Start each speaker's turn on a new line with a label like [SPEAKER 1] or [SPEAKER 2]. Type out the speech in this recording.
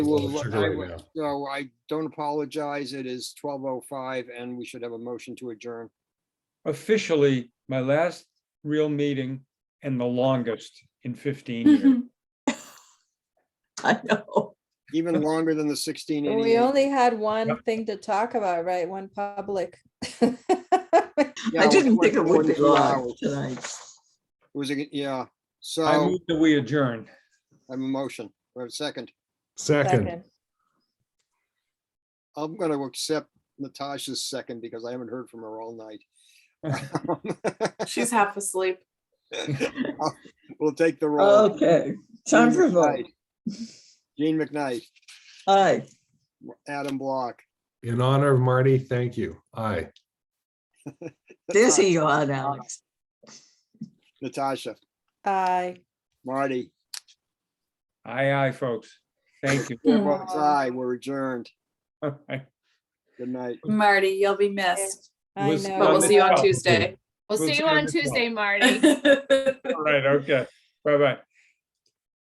[SPEAKER 1] will,
[SPEAKER 2] Sure,
[SPEAKER 1] I
[SPEAKER 2] right
[SPEAKER 1] will-
[SPEAKER 2] now.
[SPEAKER 1] so I don't apologize. It is twelve oh five and we should have a motion to adjourn.
[SPEAKER 3] officially my last real meeting and the longest in 15 years.
[SPEAKER 4] I know.
[SPEAKER 1] Even longer than the sixteen
[SPEAKER 5] Well, We
[SPEAKER 1] eighty-eight.
[SPEAKER 5] only had one thing to talk about, right? One public.
[SPEAKER 1] Yeah,
[SPEAKER 4] I
[SPEAKER 1] it
[SPEAKER 4] didn't
[SPEAKER 1] went
[SPEAKER 4] think it
[SPEAKER 1] more
[SPEAKER 4] would
[SPEAKER 1] than
[SPEAKER 4] be
[SPEAKER 1] two
[SPEAKER 4] live
[SPEAKER 1] hours.
[SPEAKER 4] tonight.
[SPEAKER 1] It was, a- yeah,
[SPEAKER 3] I
[SPEAKER 1] so
[SPEAKER 3] move that we adjourn.
[SPEAKER 1] I'm a motion, or a second.
[SPEAKER 2] Second,
[SPEAKER 5] Second.
[SPEAKER 1] I'm gonna accept Natasha's second because I haven't heard from her all night.
[SPEAKER 6] She's half asleep.
[SPEAKER 1] We'll take the roll.
[SPEAKER 4] Okay, Oh, time
[SPEAKER 1] Jean
[SPEAKER 4] for a vote.
[SPEAKER 1] McKnight. Jean McKnight,
[SPEAKER 4] Aye.
[SPEAKER 1] Adam Block.
[SPEAKER 2] in honor of Marty, thank you. Aye.
[SPEAKER 4] Dizzy you are, Alex.
[SPEAKER 1] Natasha,
[SPEAKER 5] Aye.
[SPEAKER 1] Marty,
[SPEAKER 3] Aye, aye, folks. Thank you.
[SPEAKER 5] Mm.
[SPEAKER 1] votes aye, we're adjourned. Good night.
[SPEAKER 6] Marty, you'll be missed,
[SPEAKER 5] I
[SPEAKER 3] Listen,
[SPEAKER 6] but
[SPEAKER 3] Well,
[SPEAKER 6] we'll
[SPEAKER 5] know.
[SPEAKER 6] see you on
[SPEAKER 3] Michelle.
[SPEAKER 6] Tuesday.
[SPEAKER 7] We'll
[SPEAKER 3] We'll
[SPEAKER 7] see
[SPEAKER 3] see
[SPEAKER 7] you
[SPEAKER 3] you
[SPEAKER 7] on
[SPEAKER 3] next month.
[SPEAKER 7] Tuesday, Marty.
[SPEAKER 3] All right, okay. Bye-bye.